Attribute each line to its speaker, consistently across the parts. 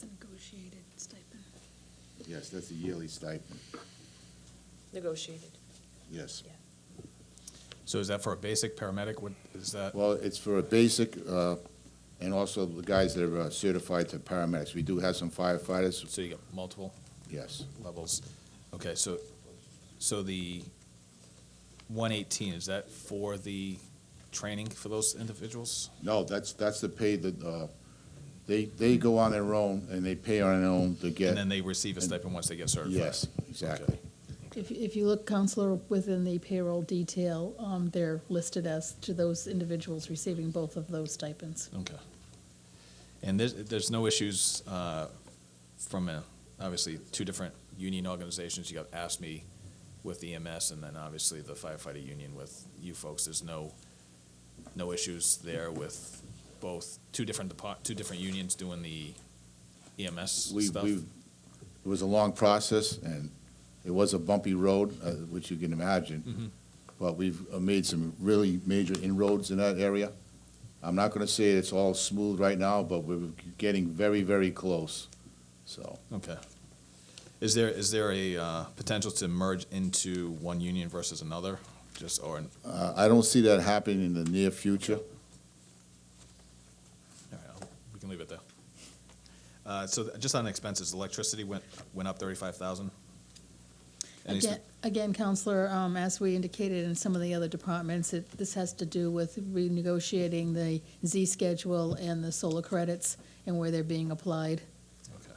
Speaker 1: negotiated stipend.
Speaker 2: Yes, that's a yearly stipend,
Speaker 3: Negotiated.
Speaker 2: yes.
Speaker 4: So is that for a basic paramedic? What is that?
Speaker 2: Well, it's for a basic, uh, and also the guys that are uh, certified to paramedics. We do have some firefighters,
Speaker 4: So you got multiple
Speaker 2: yes.
Speaker 4: levels. Okay, so, so the one eighteen, is that for the training for those individuals?
Speaker 2: No, that's, that's the pay that, uh, they, they go on their own and they pay on their own to
Speaker 4: And
Speaker 2: get,
Speaker 4: then they receive a stipend once they get certified?
Speaker 2: yes, exactly.
Speaker 5: If, if you look, Counselor, within the payroll detail, um, they're listed as to those individuals receiving both of those stipends.
Speaker 4: Okay. And there's, there's no issues uh, from, a- obviously, two different union organizations. You got ASME with EMS, and then obviously the firefighter union with you folks. There's no, no issues there with both, two different depart, two different unions doing the EMS
Speaker 2: We,
Speaker 4: stuff?
Speaker 2: we, it was a long process and it was a bumpy road, uh, which you can
Speaker 4: Mm-hmm.
Speaker 2: imagine. But we've uh, made some really major inroads in that area. I'm not gonna say it's all smooth right now, but we're getting very, very close, so.
Speaker 4: Okay. Is there, is there a uh, potential to merge into one union versus another? Just, or, all
Speaker 2: Uh, I don't see that happening in the near future.
Speaker 4: right, I'll- we can leave it there. Uh, So th- just on expenses, electricity went, went up thirty-five thousand?
Speaker 5: Again, again, Counselor, um, as we indicated in some of the other departments, it, this has to do with renegotiating the Z schedule and the solar credits and where they're being applied.
Speaker 4: Okay.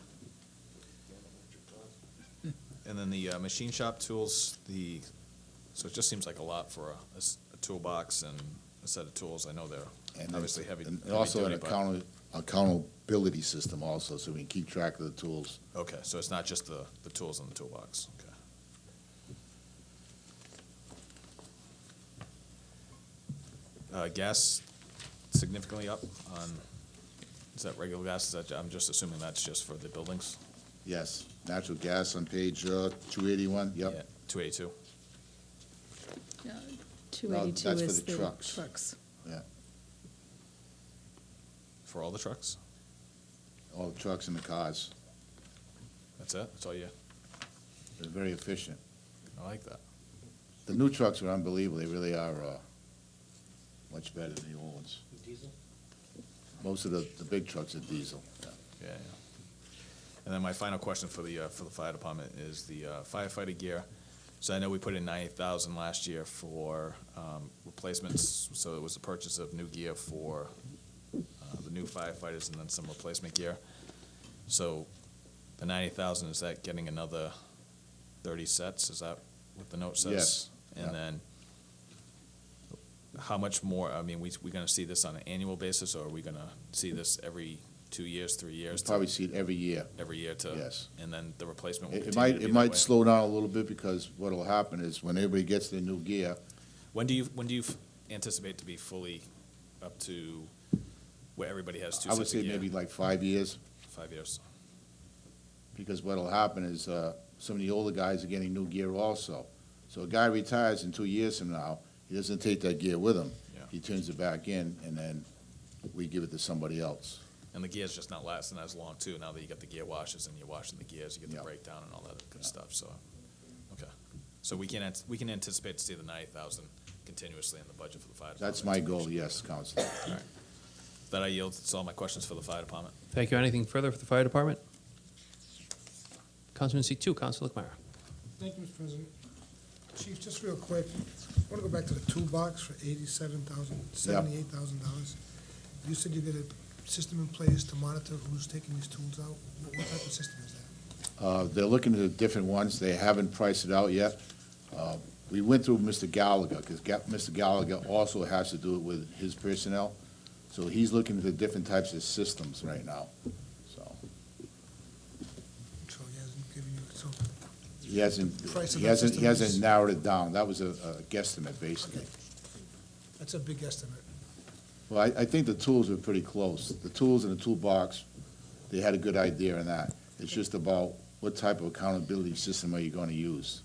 Speaker 4: And then the uh, machine shop tools, the, so it just seems like a lot for a- a, s- a toolbox and a set of tools. I know they're
Speaker 2: And
Speaker 4: obviously
Speaker 2: it's-
Speaker 4: heavy.
Speaker 2: and
Speaker 4: heavy
Speaker 2: also an
Speaker 4: duty, but-
Speaker 2: account, accountability system also, so we can keep track of the tools.
Speaker 4: Okay, so it's not just the, the tools in the toolbox, okay. Uh, gas significantly up on, is that regular gas, is that, I'm just assuming that's just for the buildings?
Speaker 2: Yes, natural gas on page, uh, two eighty-one,
Speaker 4: Yeah,
Speaker 2: yep.
Speaker 4: Two eighty-two,
Speaker 5: Two eighty-two
Speaker 2: that's for
Speaker 5: is
Speaker 2: the
Speaker 5: the
Speaker 2: trucks.
Speaker 5: trucks.
Speaker 4: for all the trucks?
Speaker 2: All the trucks and the cars,
Speaker 4: That's it, that's all you,
Speaker 2: they're very efficient.
Speaker 4: I like that.
Speaker 2: The new trucks are unbelievable, they really are, uh, much better than the old ones.
Speaker 6: Diesel?
Speaker 2: Most of the, the big trucks are diesel. yeah.
Speaker 4: Yeah, yeah. And then my final question for the, uh, for the fire department is the uh, firefighter gear. So I know we put in ninety thousand last year for, um, replacements, so it was the purchase of new gear for, uh, the new firefighters and then some replacement gear. So the ninety thousand, is that getting another thirty sets? Is that what the note says?
Speaker 2: Yes, yeah.
Speaker 4: And then how much more, I mean, we, we gonna see this on an annual basis or are we gonna see this every two years, three years? to-
Speaker 2: Probably see it every year.
Speaker 4: every year to.
Speaker 2: Yes.
Speaker 4: And then the replacement will
Speaker 2: It it
Speaker 4: continue
Speaker 2: might,
Speaker 4: to be
Speaker 2: it
Speaker 4: that
Speaker 2: might
Speaker 4: way.
Speaker 2: slow down a little bit because what'll happen is when everybody gets their new gear,
Speaker 4: When do you, when do you f- anticipate to be fully up to where everybody has two
Speaker 2: I would
Speaker 4: sets
Speaker 2: say
Speaker 4: of gear?
Speaker 2: maybe like five years,
Speaker 4: Five years.
Speaker 2: because what'll happen is, uh, some of the older guys are getting new gear also. So a guy retires in two years from now, he doesn't take that gear with him.
Speaker 4: Yeah.
Speaker 2: He turns it back in, and then we give it to somebody else.
Speaker 4: And the gear's just not lasting as long too, now that you got the gear washes and you're washing the gears, you get the
Speaker 2: Yeah.
Speaker 4: breakdown and all that good stuff, so, okay. So we can, ant- we can anticipate to see the ninety thousand continuously in the budget for the fire department.
Speaker 2: That's my goal, yes, Counselor.
Speaker 4: That I yield, that's all my questions for the fire department.
Speaker 6: Thank you. Anything further for the fire department? Councilman seat two, Councilor McMyer.
Speaker 7: Thank you, Mr. President. Chief, just real quick, I want to go back to the toolbox for eighty-seven thousand, seventy-eight thousand dollars. You said you got a system in place to monitor who's taking these tools out. What what type of system is that?
Speaker 2: Uh, They're looking at the different ones. They haven't priced it out yet. Uh, We went through Mr. Gallagher, because Mr. Gallagher also has to do it with his personnel. So he's looking at the different types of systems right now, so.
Speaker 7: So he hasn't given you, so,
Speaker 2: He hasn't,
Speaker 7: Price of
Speaker 2: he
Speaker 7: the
Speaker 2: hasn't, he
Speaker 7: system
Speaker 2: hasn't
Speaker 7: is-
Speaker 2: narrowed it down. That was a a guesstimate, basically.
Speaker 7: that's a big estimate.
Speaker 2: Well, I, I think the tools were pretty close. The tools in the toolbox, they had a good idea on that. It's just about what type of accountability system are you gonna use?